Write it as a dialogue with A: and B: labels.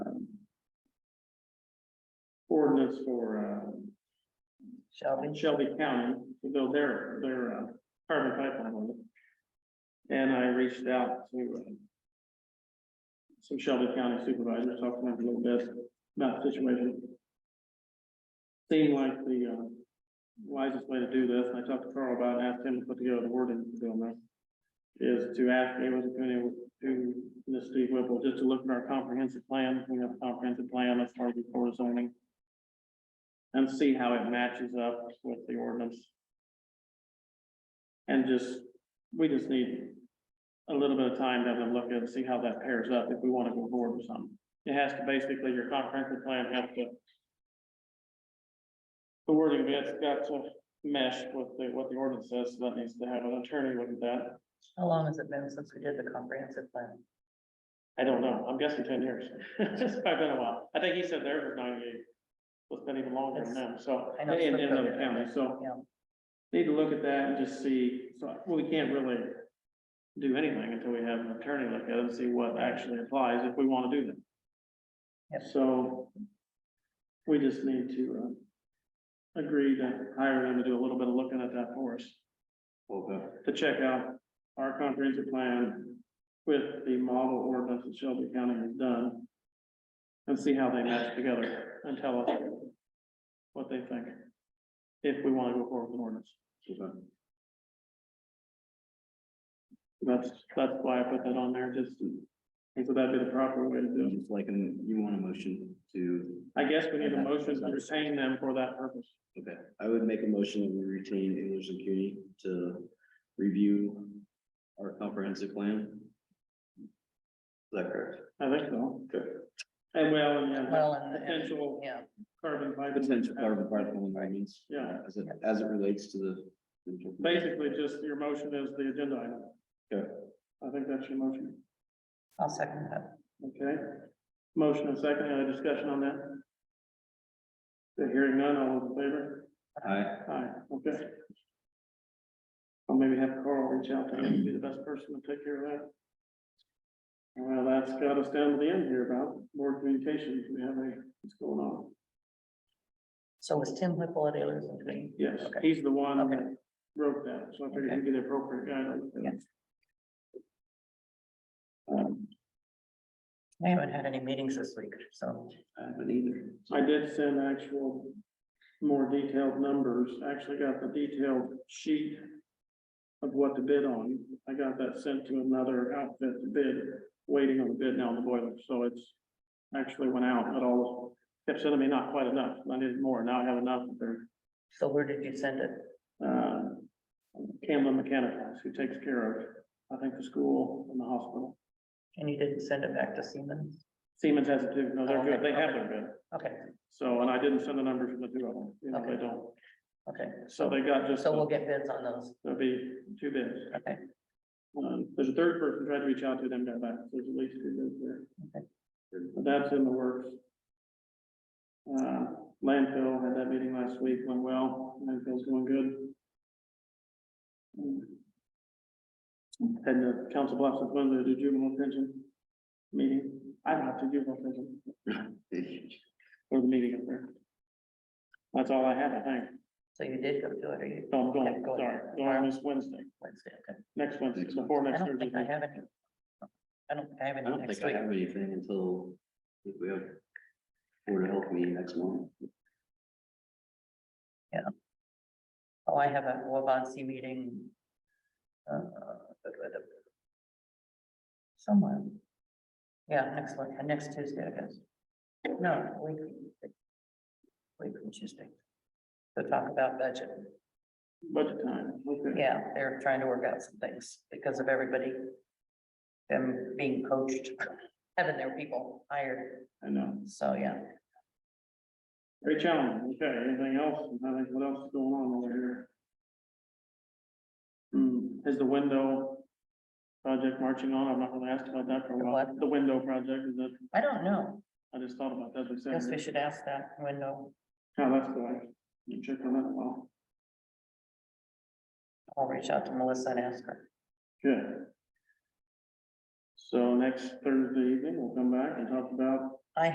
A: ordinance for, uh,
B: Shelby.
A: Shelby County, though their, their, uh, carbon pipeline. on it. And I reached out to, uh, some Shelby County supervisors, talked to them a little bit about the situation. Seemed like the, uh, wisest way to do this, and I talked to Carl about it, and asked him to put together the wording to go on there. Is to ask anyone to, anyone to, Ms. Steve Whipple, just to look at our comprehensive plan, we have a comprehensive plan as far as before zoning. And see how it matches up with the ordinance. And just, we just need a little bit of time to have a look at, it, see how that pairs up, if we want to go forward with something. It has to basically, your comprehensive plan has to the wording of it's got to mesh with the, what the ordinance says, so that needs to have an attorney look at that.
B: How long has it been since we did the comprehensive plan?
A: I don't know, I'm guessing ten years, it's probably been a while, I think he said theirs was ninety-eight. So It's been even longer than them, so,
B: I
A: in,
B: know it's
A: in
B: been
A: another
B: longer.
A: county, so.
B: Yeah.
A: Need to look at that and just see, so, well, we can't really do anything until we have an attorney look at it and see what actually applies if we want to do
B: Yep.
A: that. So we just need to, uh, agree to hire them to do a little bit of looking at that for us,
C: Okay.
A: to check out our comprehensive plan with the model ordinance that Shelby County has done and see how they match together and tell us what they think, if we want to go forward with an ordinance.
C: okay.
A: That's, that's why I put that on there, just, and so that'd be the proper way to do
C: It's Like, an- you want a motion to,
A: it. I guess we need a motion to retain them for that purpose.
C: okay, I would make a motion to retain English and CUNY to review our comprehensive plan. Is that correct?
A: I think so.
C: Okay. uh,
A: And well, yeah,
B: Well, and, and,
A: potential
B: yeah,
A: carbon fiber.
C: Potential carbon pipeline findings.
A: Yeah.
C: As it, as it relates to the.
A: Basically, just your motion is the agenda item.
C: Okay.
A: I think that's your motion,
B: I'll second that.
A: okay? Motion and second, any other discussion on that? The hearing none, all those in favor?
C: Aye.
A: Aye, okay. I'll maybe have Carl reach out to him, be the best person to take care of that. Well, that's got us down to the end here about board communications, we have a, what's going on?
B: So was Tim Whipple at Ayers and Green?
A: Yes,
B: Okay.
A: he's the one
B: Okay.
A: that wrote that, so I figured he'd be the appropriate guy. to look at it. Um,
B: I haven't had any meetings this week, so.
C: I haven't either.
A: I did send actual more detailed numbers, actually got the detailed sheet of what to bid on. I got that sent to another outfit to bid, waiting on the bid now on the boiler, so it's actually went out at all. Kept sending me not quite enough, I needed more, now I have enough there.
B: So where did you send it?
A: Uh, Camlin Mechanicals, who takes care of, I think, the school and the hospital.
B: And you didn't send it back to Siemens?
A: Siemens has it too, no, they're good, they have their bid.
B: Okay,
A: So, and I didn't send the numbers from the two of them, you know, they
B: Okay.
A: don't,
B: okay.
A: so they got just.
B: So
A: the-
B: we'll get bids on those.
A: That'd be two bids.
B: Okay.
A: Um, there's a third person tried to reach out to them, got back, there's at least two bids there.
B: Okay.
A: But that's in the works. Uh, landfill had that meeting last week, went well, landfill's going good. Um, Had the council blocks of Monday to do juvenile pension meeting, I don't have to do juvenile pension, or the meeting up there. That's all I have, I think,
B: So you did go to it, or you?
A: no, I'm
B: Okay,
A: going,
B: go
A: sorry,
B: ahead.
A: going this Wednesday,
B: Wednesday, okay.
A: next Wednesday,
C: Next
A: before
B: I
A: next
B: don't think I
A: Thursday.
B: have any. I don't think I have
C: I
B: any
C: don't think
B: next
C: I
B: week.
C: have anything until I think we have Board of Health meeting next month.
B: Oh, I have a Wabansie meeting. uh, but with a- Somewhere. Yeah, next one, uh, next Tuesday, I guess. No, week. Week from Tuesday. To talk about budget.
A: Budget time, okay.
B: Yeah, they're trying to work out some things because of everybody. Them being coached, having their people hired.
A: I know.
B: So, yeah,
A: Great challenge. Okay, anything else? I think what else is going on over here? Hmm, is the window project marching on? I've not really asked about that for a
B: The
A: while.
B: what?
A: The window project, is that,
B: I don't know.
A: I just thought about that, as we
B: Guess we
A: said.
B: should ask that window.
A: How Oh, that's going. You check on that a while.
B: I'll reach out to Melissa and ask her.
A: Good. So next Thursday evening, we'll come back and talk about